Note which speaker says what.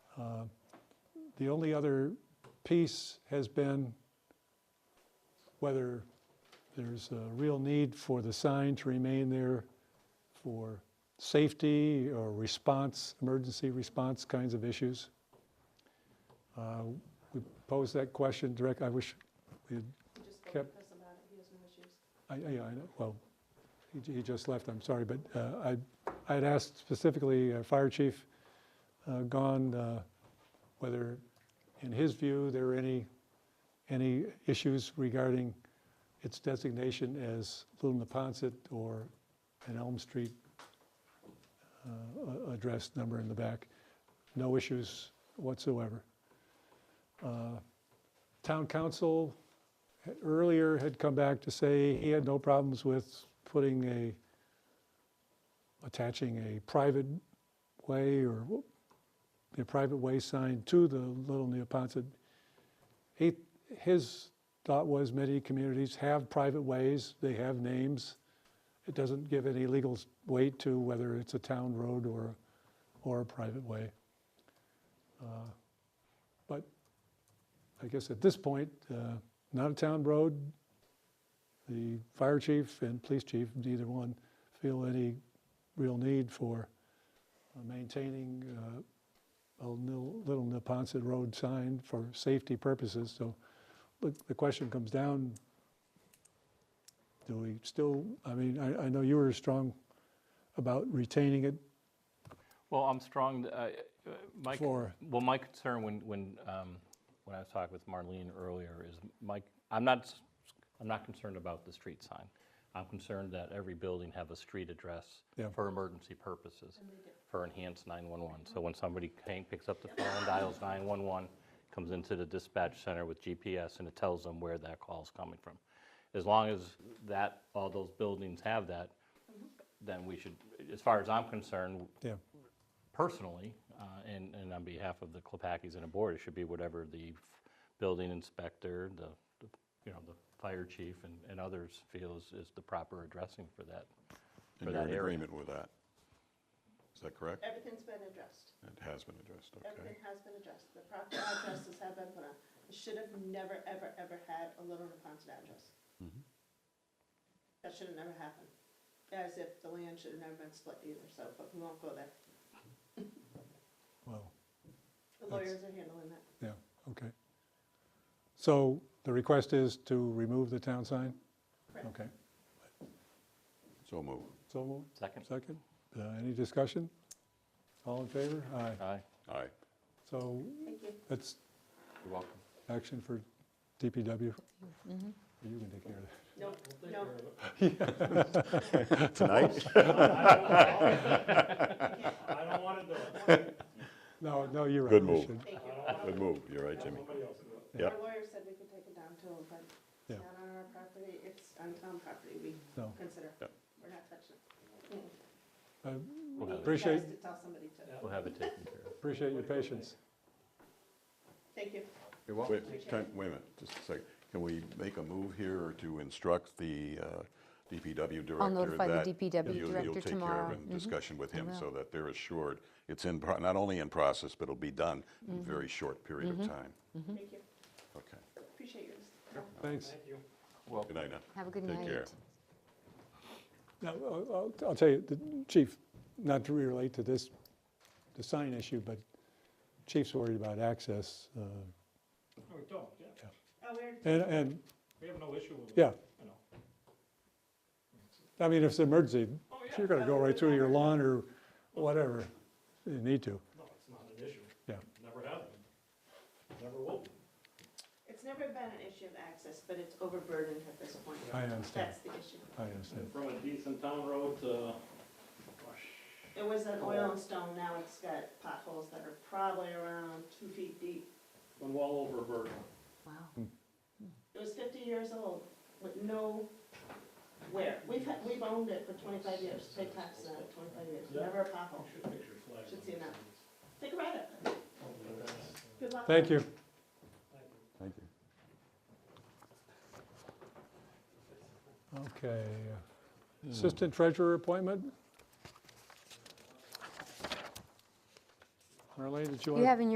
Speaker 1: Uh, The only other piece has been whether there's a real need for the sign to remain there for safety or response, emergency response kinds of issues. Uh, We posed that question direct, I wish we had
Speaker 2: We just spoke
Speaker 1: Kept-
Speaker 2: with Chris about it, he has no issues.
Speaker 1: I, I, I know- well, he, j- he just left, I'm sorry, but uh, I, I had asked specifically uh, Fire Chief uh, Gahn uh, whether, in his view, there are any, any issues regarding its designation as Little Neponset or an Elm Street uh, a- address number in the back. No issues whatsoever. Uh, Town council had- earlier had come back to say he had no problems with putting a, attaching a private way or wh- a private way sign to the Little Neapontet. He, his thought was many communities have private ways, they have names. It doesn't give any legal s- weight to whether it's a town road or, or a private way. Uh, But I guess at this point, uh, not a town road. The fire chief and police chief, neither one feel any real need for uh, maintaining uh, a nil- little Neponset Road sign for safety purposes. So the the question comes down, do we still, I mean, I, I know you were strong about retaining it
Speaker 3: Well, I'm strong, uh, uh, my, con-
Speaker 1: for,
Speaker 3: well, my concern when, when, um, when I was talking with Marlene earlier is my, I'm not, s- I'm not concerned about the street sign. I'm concerned that every building have a street address
Speaker 1: Yeah.
Speaker 3: for emergency purposes, for enhanced 911. So when somebody came, picks up the phone, dials 911, comes into the dispatch center with GPS and it tells them where that call's coming from. As long as that, all those buildings have that, then we should, as far as I'm concerned,
Speaker 1: yeah,
Speaker 3: personally, uh, and, and on behalf of the Klopakis and the board, it should be whatever the f- building inspector, the, the, you know, the fire chief and, and others feels is the proper addressing for that.
Speaker 4: And
Speaker 3: for
Speaker 4: you're
Speaker 3: that
Speaker 4: in
Speaker 3: area.
Speaker 4: agreement with that? Is that correct?
Speaker 2: Everything's been addressed.
Speaker 4: It has been addressed, okay.
Speaker 2: Everything has been addressed. The proper addresses have been put on. It should have never, ever, ever had a Little Napontet address.
Speaker 4: Mm-hmm.
Speaker 2: That should have never happened. As if the land should have never been split either, so, but we won't go there.
Speaker 1: well,
Speaker 2: The
Speaker 1: That's-
Speaker 2: lawyers are handling that.
Speaker 1: yeah, okay. So the request is to remove the town sign?
Speaker 2: Correct.
Speaker 1: Okay.
Speaker 4: So move.
Speaker 1: So moved.
Speaker 3: Second?
Speaker 1: Second, Uh, any discussion? All in favor? Aye.
Speaker 3: Aye,
Speaker 4: Aye.
Speaker 1: So
Speaker 2: Thank you.
Speaker 1: that's
Speaker 3: you're welcome.
Speaker 1: action for DPW. You can take care of that.
Speaker 2: No, no,
Speaker 4: Tonight?
Speaker 5: I don't want to do it.
Speaker 1: No, no, you're right.
Speaker 4: Good
Speaker 1: we
Speaker 4: move.
Speaker 1: should-
Speaker 2: thank you.
Speaker 4: Good move, you're right, Jimmy.
Speaker 5: Somebody else do it.
Speaker 4: Yeah.
Speaker 2: Our lawyer said we could take it down too, but
Speaker 1: Yeah.
Speaker 2: not on our property, it's on town property, we
Speaker 1: No.
Speaker 2: consider.
Speaker 4: Yeah.
Speaker 2: We're not touching it.
Speaker 1: I
Speaker 3: We'll have it,
Speaker 1: Appreciate-
Speaker 2: You guys to tell somebody to.
Speaker 3: we'll have it taken care of.
Speaker 1: Appreciate your patience.
Speaker 2: Thank you.
Speaker 3: You're
Speaker 4: Wait, can- wait a minute, just a second. Can we make a move here to instruct the uh, DPW director?
Speaker 6: I'll notify the
Speaker 4: that
Speaker 6: DPW
Speaker 4: you-
Speaker 6: director
Speaker 4: You'll take care of
Speaker 6: tomorrow. Mm-hmm.
Speaker 4: it in discussion with him
Speaker 6: will.
Speaker 4: so that they're assured it's in, pro- not only in process, but it'll be done in
Speaker 6: Mm-hmm.
Speaker 4: a very short period of time.
Speaker 1: Mm-hmm.
Speaker 2: Thank you.
Speaker 4: Okay.
Speaker 2: Appreciate yours.
Speaker 1: Thanks.
Speaker 5: Thank you.
Speaker 4: Good night now.
Speaker 6: Have a good
Speaker 4: Take
Speaker 6: night.
Speaker 4: care.
Speaker 1: Now, I'll, I'll- I'll tell you, the chief, not to relate to this, the sign issue, but chief's worried about access. uh,
Speaker 5: No, we don't, yeah.
Speaker 2: Oh, we're,
Speaker 1: And, and,
Speaker 5: We have no issue with it.
Speaker 1: yeah,
Speaker 5: You know.
Speaker 1: I mean, if it's an emergency,
Speaker 5: Oh, yeah.
Speaker 1: you're going to go right through your lawn or whatever, you need to,
Speaker 5: No, it's not an issue.
Speaker 1: yeah.
Speaker 5: Never have been. Never will.
Speaker 2: it's never been an issue of access, but it's overburdened at this point.
Speaker 1: I understand.
Speaker 2: That's the issue.
Speaker 1: I understand.
Speaker 5: From a decent town road to, gosh,
Speaker 2: It was an oil and stone, now it's got potholes that are probably around two feet deep.
Speaker 5: been well over a burden.
Speaker 6: Wow.
Speaker 2: It was fifty years old with no wear. We've had, we've owned it for twenty-five years, paid taxes on it twenty-five years,
Speaker 5: Yeah.
Speaker 2: never a pothole.
Speaker 5: Should picture flag.
Speaker 2: Should see that. Think about it. Good luck.
Speaker 1: Thank you.
Speaker 4: Thank you.
Speaker 1: Okay. uh, Assistant Treasurer appointment? Marlene, did you want to?
Speaker 6: You have in